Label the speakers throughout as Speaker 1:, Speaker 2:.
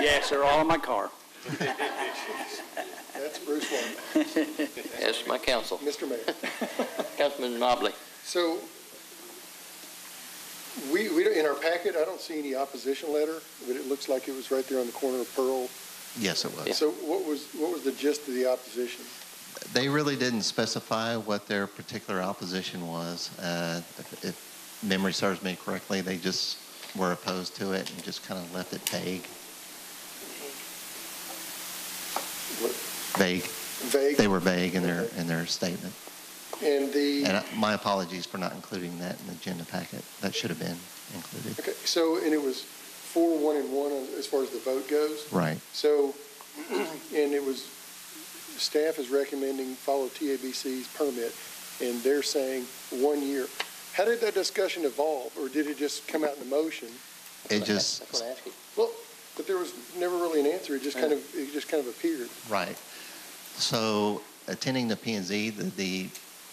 Speaker 1: Yes, they're all in my car.
Speaker 2: That's Bruce Wong.
Speaker 3: Yes, my counsel.
Speaker 2: Mr. Mayor.
Speaker 3: Councilman Mobley.
Speaker 2: So we, we, don't- in our packet, I don't see any opposition letter, but it looks like it was right there on the corner of Pearl.
Speaker 4: Yes, it was.
Speaker 2: So what was, what was the gist of the opposition?
Speaker 4: They really didn't specify what their particular opposition was. Uh, if, if memory serves me correctly, they just were opposed to it and just kind of left it vague.
Speaker 2: What?
Speaker 4: Vague.
Speaker 2: Vague?
Speaker 4: They were vague in their in their statement.
Speaker 2: And the.
Speaker 4: And I, my apologies for not including that in the agenda packet. That should have been included.
Speaker 2: Okay, so, and it was four, one, and one as- as far as the vote goes.
Speaker 4: Right.
Speaker 2: So, and it was, staff is recommending follow TABC's permit, and they're saying one year. How did that discussion evolve, or did it just come out in the motion?
Speaker 4: It just
Speaker 3: That's what I asked you.
Speaker 2: But there was never really an answer, it just kind of, it just kind of appeared.
Speaker 4: Right. So attending the P and Z, the, the,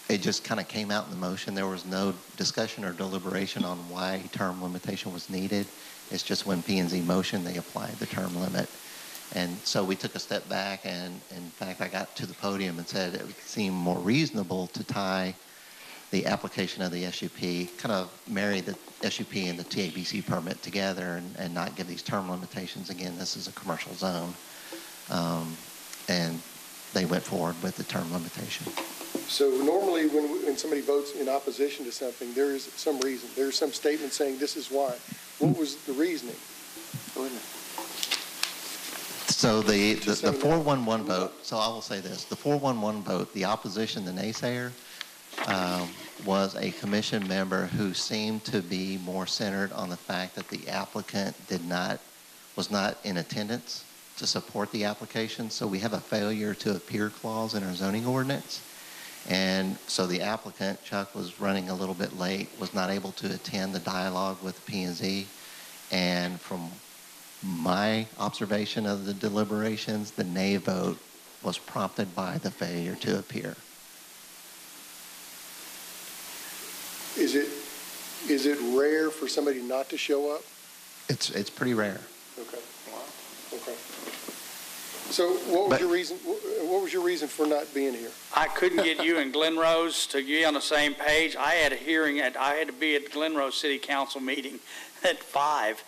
Speaker 4: it just kind of came out in the motion. There was no discussion or deliberation on why term limitation was needed. It's just when P and Z motioned, they applied the term limit. And so we took a step back and, in fact, I got to the podium and said it would seem more reasonable to tie the application of the SUP, kind of marry the SUP and the TABC permit together and, and not give these term limitations. Again, this is a commercial zone. Um, and they went forward with the term limitation.
Speaker 2: So normally, when, we- when somebody votes in opposition to something, there is some reason, there's some statement saying this is why. What was the reasoning?
Speaker 4: So the, the,
Speaker 2: Just
Speaker 4: the
Speaker 2: so-
Speaker 4: 411 vote, so I will say this, the 411 vote, the opposition, the naysayer, um, was a commission member who seemed to be more centered on the fact that the applicant did not, was not in attendance to support the application. So we have a failure to appear clause in our zoning ordinance. And so the applicant, Chuck, was running a little bit late, was not able to attend the dialogue with P and Z. And from my observation of the deliberations, the nay vote was prompted by the failure to appear.
Speaker 2: Is it, is it rare for somebody not to show up?
Speaker 4: It's, it's pretty rare.
Speaker 2: Okay. Okay. So what was
Speaker 4: But-
Speaker 2: your reason, wh- what was your reason for not being here?
Speaker 1: I couldn't get you and Glen Rose to be on the same page. I had a hearing at, I had to be at Glen Rose City Council meeting at five.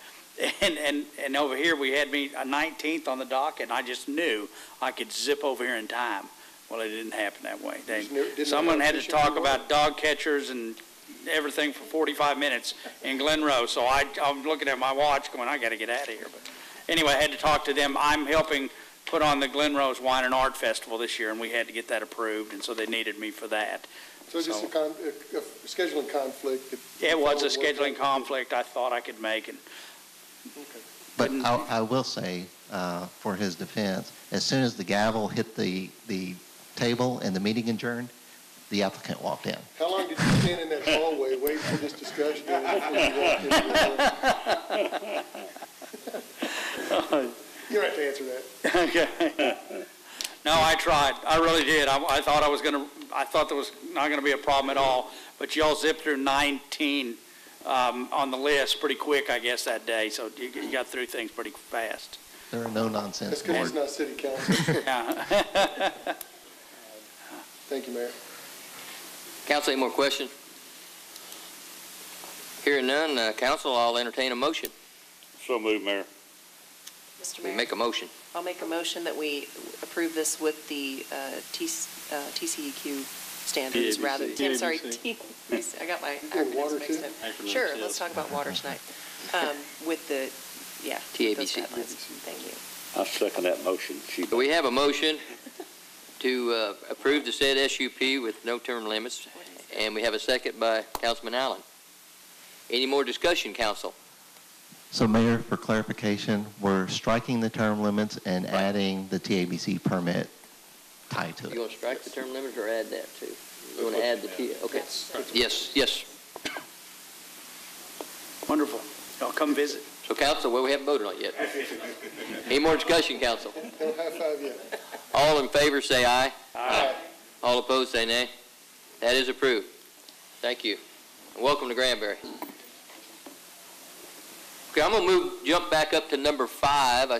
Speaker 1: And, and, and over here, we had me a 19th on the docket, and I just knew I could zip over here in time. Well, it didn't happen that way. They,
Speaker 2: Just knew- didn't know
Speaker 1: someone had to
Speaker 2: efficient you
Speaker 1: talk
Speaker 2: were.
Speaker 1: about dog catchers and everything for 45 minutes in Glen Rose. So I, I'm looking at my watch going, I gotta get out of here. But anyway, I had to talk to them. I'm helping put on the Glen Rose Wine and Art Festival this year, and we had to get that approved, and so they needed me for that.
Speaker 2: So just a
Speaker 1: So-
Speaker 2: con, a a scheduling conflict. if-
Speaker 1: It was a
Speaker 2: if all worked
Speaker 1: scheduling
Speaker 2: out.
Speaker 1: conflict I thought I could make, and
Speaker 4: But
Speaker 1: Couldn't-
Speaker 4: I, I will say, uh, for his defense, as soon as the gavel hit the, the table and the meeting adjourned, the applicant walked in.
Speaker 2: How long did you stand in that hallway waiting for this discussion? to end before you walked in the room? You don't have to answer that.
Speaker 1: Okay. No, I tried. I really did. I, I thought I was gonna, I thought there was not gonna be a problem at all, but y'all zipped through nineteen, um, on the list pretty quick, I guess, that day, so you, you got through things pretty fast.
Speaker 4: There are no
Speaker 2: That's
Speaker 4: nonsense
Speaker 2: because
Speaker 4: board.
Speaker 2: it's not city council.
Speaker 1: Yeah.
Speaker 2: Thank you, Mayor.
Speaker 3: Council, any more questions? Hearing none, uh, council, I'll entertain a motion.
Speaker 5: So moved, Mayor.
Speaker 6: Mr.
Speaker 3: We
Speaker 6: Mayor,
Speaker 3: make a motion.
Speaker 6: I'll make a motion that we approve this with the uh, T- uh, TCEQ standards
Speaker 5: TABC.
Speaker 6: rather, I'm sorry, T- I got my
Speaker 2: You're doing water
Speaker 6: acronyms mixed
Speaker 2: too?
Speaker 6: up. Sure, let's talk about water tonight. Um, With the, yeah. those
Speaker 3: TABC.
Speaker 6: guidelines. Thank you.
Speaker 5: I second that motion. She-
Speaker 3: We have a motion to uh, approve the said SUP with no term limits, and we have a second by Councilman Allen. Any more discussion, council?
Speaker 4: So Mayor, for clarification, we're striking the term limits and adding the TABC permit tied to it.
Speaker 3: You want to strike the term limits or add that too? You want to add the T, okay. Yes, yes.
Speaker 1: Wonderful. Y'all come visit.
Speaker 3: So council, well, we haven't voted on it yet. Any more discussion, council?
Speaker 2: Don't high five yet.
Speaker 3: All in favor, say aye. Aye. All opposed, say nay. That is approved. Thank you. And welcome to Granbury. Okay, I'm gonna move, jump back up to number five. I